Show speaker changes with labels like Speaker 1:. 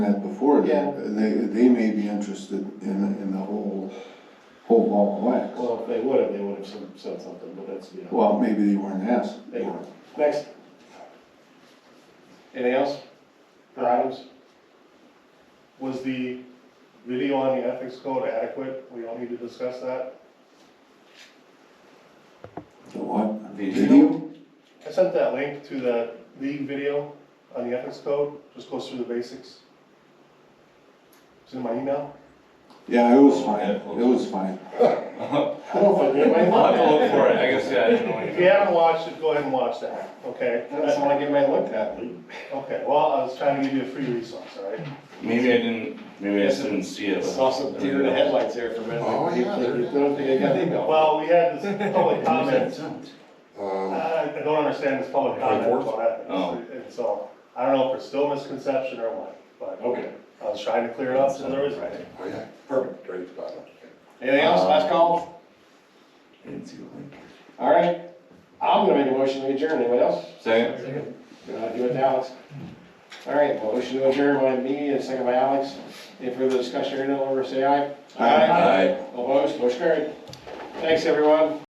Speaker 1: board,
Speaker 2: Yeah.
Speaker 1: they, they may be interested in, in the whole, whole ball of wax.
Speaker 2: Well, if they would have, they would have some- said something, but that's, you know.
Speaker 1: Well, maybe they weren't asked.
Speaker 2: They weren't. Next. Anything else for items? Was the video on the ethics code adequate? We all need to discuss that.
Speaker 1: The what?
Speaker 3: Video?
Speaker 2: I sent that link to the league video on the ethics code, just goes through the basics. It's in my email.
Speaker 1: Yeah, it
Speaker 2: Oh,
Speaker 1: was fine,
Speaker 3: Yeah,
Speaker 1: it was fine.
Speaker 3: I'll
Speaker 2: I don't know if I did, I
Speaker 3: have
Speaker 2: might.
Speaker 3: to look for it, I guess, yeah, I didn't know
Speaker 2: If
Speaker 3: anything.
Speaker 2: you haven't watched it, go ahead and watch that, okay? That's when I get my link at. Okay, well, I was trying to give you a free resource, all right?
Speaker 3: Maybe I didn't, maybe I just didn't see it.
Speaker 4: Saw some deer in the headlights there for a minute.
Speaker 5: Oh, yeah, there it is.
Speaker 4: I don't think I got the email.
Speaker 2: Well, we had this public comment, Uh,
Speaker 5: Um,
Speaker 2: I I don't understand this public comment about
Speaker 3: Oh.
Speaker 2: ethics. And so, I don't know if it's still misconception or what, but
Speaker 4: Okay,
Speaker 2: I was trying to clear it up so there is.
Speaker 5: oh, yeah,
Speaker 4: perfect.
Speaker 5: right at the bottom.
Speaker 4: Anything else, last call?
Speaker 3: Didn't see the link.
Speaker 4: All right, I'm gonna make a motion to adjourn, anyone else?
Speaker 3: Second?
Speaker 4: Uh, do it now, it's- all right, motion to adjourn by me and second by Alex. Any further Uh, discussion, hearing none, all in favor, say aye.
Speaker 1: Aye.
Speaker 3: Aye.
Speaker 4: Opposed, motion carried. Thanks, everyone.